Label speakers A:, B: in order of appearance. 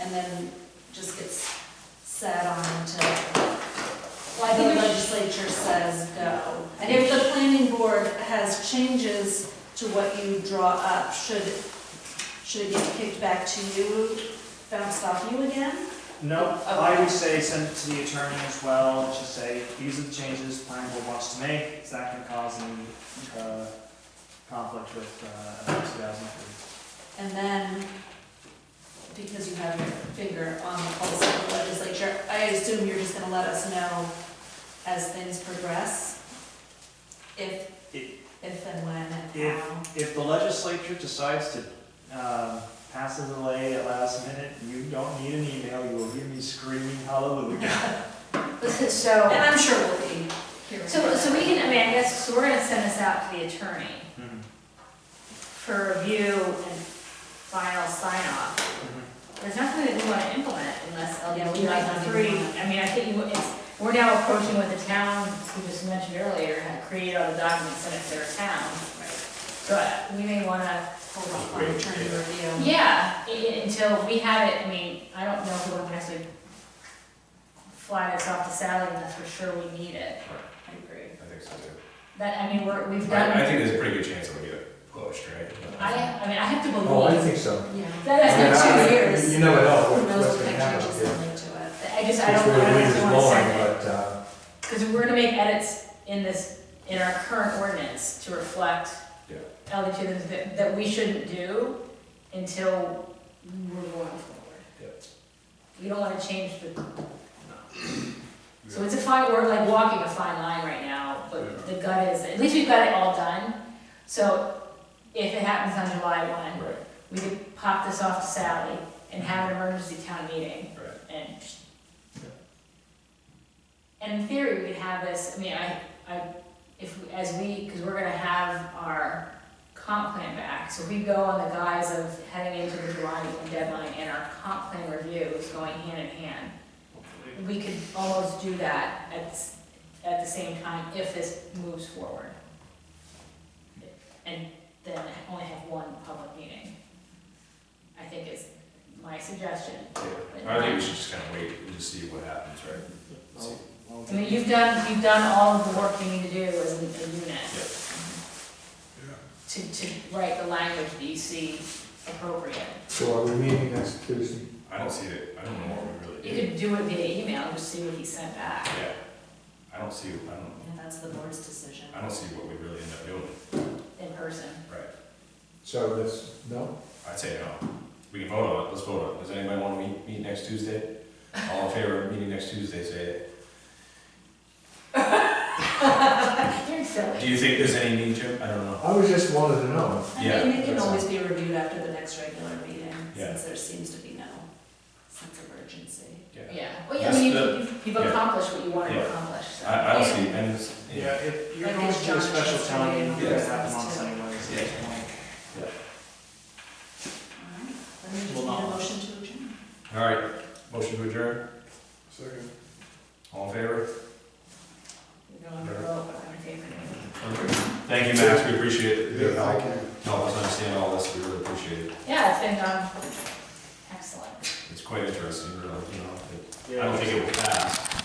A: and then just gets sat on until, like the legislature says, go. And if the planning board has changes to what you draw up, should, should it get kicked back to you, bounced off you again?
B: No, I would say send it to the attorney as well, just say, these are the changes planning board wants to make, is that gonna cause any, uh, conflict with, uh, two thousand three?
A: And then, because you have your finger on the pulse of the legislature, I assume you're just gonna let us know as things progress? If,
B: If-
A: if and when and
B: If-
A: how?
B: If the legislature decides to, um, pass a delay at last minute, you don't need an email, you will hear me screaming hallelujah.
A: And
C: So,
A: I'm sure we'll be hearing.
C: so,
A: that.
C: so we can, I mean, I guess, so we're gonna send this out to the attorney
B: Mhm,
C: for review and final sign off.
B: mhm.
C: There's nothing that we wanna implement unless
A: Yeah, we might not
C: LD
A: even
C: three,
A: want
C: I mean, I think you- it's, we're now approaching what the town, as we just mentioned earlier, had created all the documents, sent it to their town. But we may wanna,
A: Hold off on attorney review.
C: yeah, i- i- until we have it, I mean, I don't know if we can actually fly this off to Sally unless we're sure we need it.
A: I agree.
D: I think so too.
C: That, I mean, we're, we've done.
D: I, I think there's a pretty good chance it'll get pushed, right?
C: I, I mean, I have to
E: Oh, I
C: believe,
E: think so.
A: Yeah.
C: that has been
A: Yeah.
C: two
A: Two
C: years.
A: years.
E: You never know
A: Who
E: what-
A: knows
E: what's
A: what
E: gonna
A: kind of
E: happen.
A: changes
E: yeah.
A: they'll make to it?
C: I just, I
E: It's
C: don't,
E: where the
C: I
E: wind
C: don't
E: is
C: want to
E: blowing,
C: send it.
E: but, uh,
C: Because we're gonna make edits in this, in our current ordinance to reflect
D: Yeah.
C: LD two that, that we shouldn't do until we're going forward.
D: Yep.
C: You don't wanna change the, so it's a fine, we're like walking a fine line right now, but the gut is, at least we've got it all done. So if it happens on July one,
D: Right,
C: we could pop this off to Sally and have an emergency town meeting
D: right.
C: and. And in theory, we could have this, I mean, I, I, if, we- as we, because we're gonna have our comp plan back, so we go on the guise of heading into the July deadline and our comp plan review is going hand in hand. We could almost do that at, s- at the same time if this moves forward. And then only have one public meeting, I think is my suggestion.
D: Yeah. I think we should just kind of wait and just see what happens, right?
B: I'll- I'll-
C: I mean, you've done, you've done all of the work you need to do as a a unit. To, to write the language that you see appropriate.
E: so are we meeting next Tuesday?
D: I don't see it, I don't know what we really
C: You
D: do.
C: could do it via email, and just see what he sent back.
D: Yeah. I don't see, I don't,
A: And that's the board's decision.
D: I don't see what we really end up doing,
C: in person.
D: right?
E: So that's, no?
D: I'd say no. We can vote on it, let's vote on it. Does anybody want to meet, meet next Tuesday? All in favor of meeting next Tuesday, say it.
C: You're silly.
D: Do you think there's any need to? I don't know.
E: I was just wanted to know.
A: I
D: Yeah,
A: mean, it can
D: that's
A: always be reviewed after the next regular meeting,
D: Yeah.
A: since there seems to be no sense of urgency.
C: Yeah, well, yeah, I mean, you've- you've, you've accomplished what you wanted to
D: Yeah.
C: accomplish, so.
D: I, I don't see, and it's,
B: Yeah,
D: yeah,
B: if you're
A: Like
B: going
A: it's
B: to a
A: John
B: special
A: Chester
B: town meeting,
A: and
B: you
A: all
B: guys
A: those
B: have them on
A: too.
B: Sundays at
D: Yeah.
B: this point.
A: All right, then we just need
B: Well,
A: a
B: not-
A: motion to adjourn.
D: all right. Motion to adjourn,
E: Second.
D: all in favor?
C: You're going to roll, but I'm in favor.
D: Perfect. Thank you, Max, we appreciate it. Your
E: Yeah, I
D: help.
E: can.
D: Help us understand all this, we really appreciate it.
C: Yeah, it's been, um, excellent.
D: It's quite interesting, really, you know, but I
B: Yeah.
D: don't think it will pass.